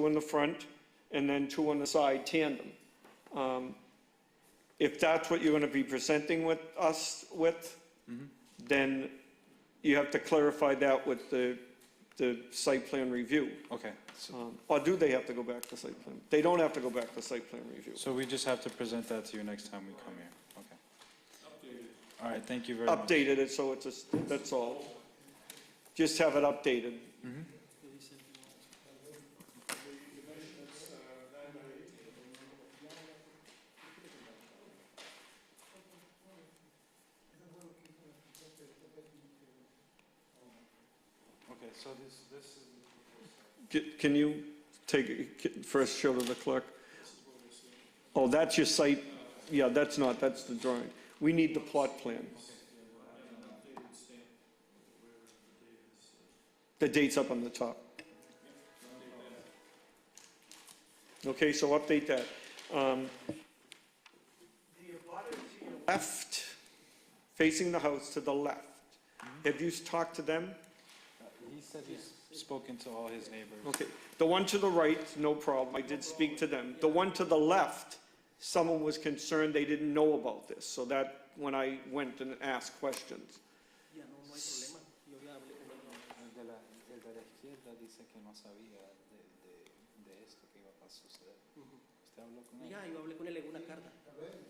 two in the front and then two on the side tandem. Um, If that's what you're going to be presenting with us with, then you have to clarify that with the, the site plan review. Okay, so, Um, Or do they have to go back to site plan? They don't have to go back to site plan review. so we just have to present that to you next time we come here, okay. All right, thank you very much. Updated it so it's, just- that's all. Just have it updated. Okay, so this, this is. Ca- Can you take, ca- first show to the clerk? Oh, that's your site, yeah, that's not, that's the drawing. We need the plot plan. The date's up on the top. Okay, so update that. Um, Left, facing the house to the left. Have you talked to them? He said he's spoken to all his neighbors. Okay, the one to the right, no problem, I did speak to them. The one to the left, someone was concerned they didn't know about this, so that, when I went and asked questions. Ya no, no hay problema. Yo ya hablé con él. El de la, el de la izquierda dice que no sabía de, de, de esto que iba a suceder. ¿Usted habló con él? Ya, yo hablé con él en una carta.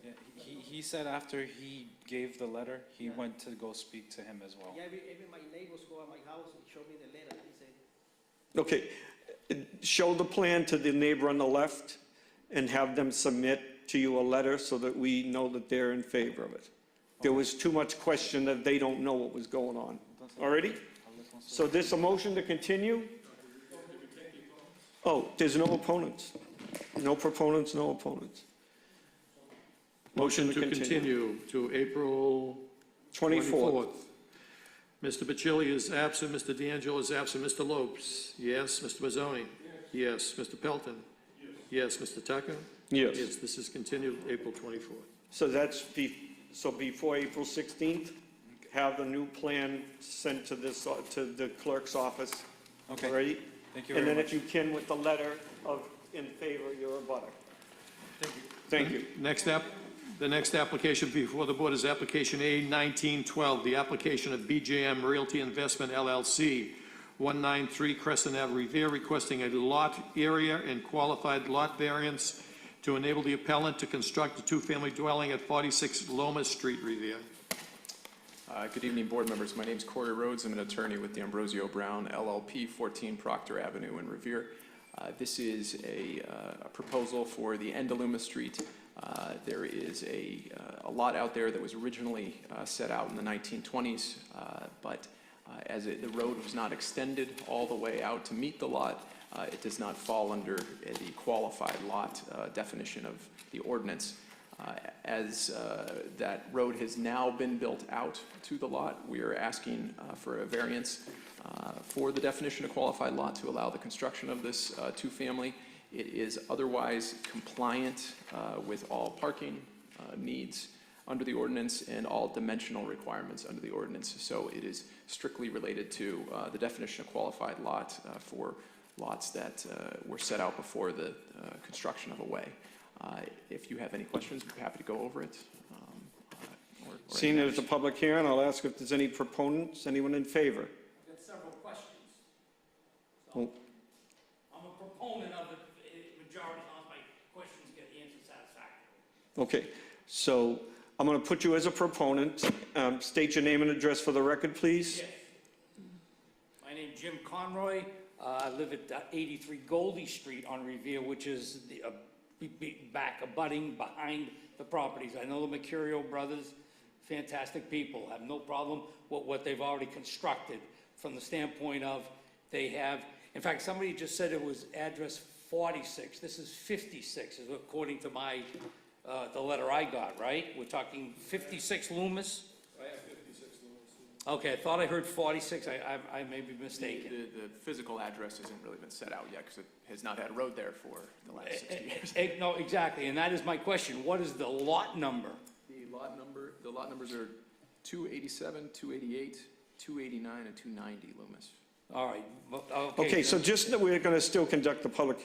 Yeah, he, he said after he gave the letter, he Yeah. went to go speak to him as well. Ya every, every my neighbors go at my house and show me the letter. He said, Okay, show the plan to the neighbor on the left and have them submit to you a letter so that we know that they're in favor of it. There was too much question that they don't know what was going on. Already? Hablé con su- So this a motion to continue? Oh, there's no opponents. No proponents, no opponents. Motion to continue. to April 24th. 24th. Mr. Bacilli is absent, Mr. D'Angelo is absent, Mr. Lopes, yes, Mr. Mazzoni? Yes. Mr. Pelton? Yes. Mr. Tucker? Yes. this is continued April 24th. So that's, be- so before April 16th, have the new plan sent to this, uh, to the clerk's office. Okay, Already? thank you And very then if much. you can, with the letter of in favor, you're a butter. Thank you. Next app, the next application before the board is application A1912, the application of BJM Realty Investment LLC, 193 Crescent Ave Revere, requesting a lot area and qualified lot variance to enable the appellant to construct a two-family dwelling at 46 Loma Street, Revere. Uh, Good evening, board members. My name's Corey Rhodes. I'm an attorney with the Ambrosio Brown LLP, 14 Proctor Avenue in Revere. Uh, This is a uh, a proposal for the end of Luma Street. Uh, There is a uh, a lot out there that was originally uh, set out in the 1920s, uh, but uh, as it- the road was not extended all the way out to meet the lot, uh, it does not fall under uh, the qualified lot uh, definition of the ordinance. Uh, As uh, that road has now been built out to the lot, we are asking uh, for a variance uh, for the definition of qualified lot to allow the construction of this uh, two-family. It is otherwise compliant uh, with all parking uh, needs under the ordinance and all dimensional requirements under the ordinance. So it is strictly related to uh, the definition of qualified lot uh, for lots that uh, were set out before the uh, construction of a way. Uh, If you have any questions, we're happy to go over it. um, uh, or- or any Seeing others. there's a public hearing, I'll ask if there's any proponents, anyone in favor? I've got several questions. Oh. So, I'm a proponent of it, eh, majority of my questions get answered satisfactorily. Okay, so I'm going to put you as a proponent. Um, State your name and address for the record, please. Yes. My name's Jim Conroy. Uh, I live at uh, 83 Goldie Street on Revere, which is the, uh, be- be- back abutting behind the properties. I know the Mercurio brothers, fantastic people, have no problem with what they've already constructed from the standpoint of they have, in fact, somebody just said it was address 46. This is 56, is according to my, uh, the letter I got, right? We're talking 56 Loomis? Okay, I thought I heard 46, I, I, I may be mistaken. The, the physical address hasn't really been set out yet because it has not had a road there for the last 60 years. Eh, No, exactly, and that is my question, what is the lot number? The lot number, the lot numbers are 287, 288, 289, and 290 Loomis. All right, well, okay. Okay, so then- just that we're going to still conduct the public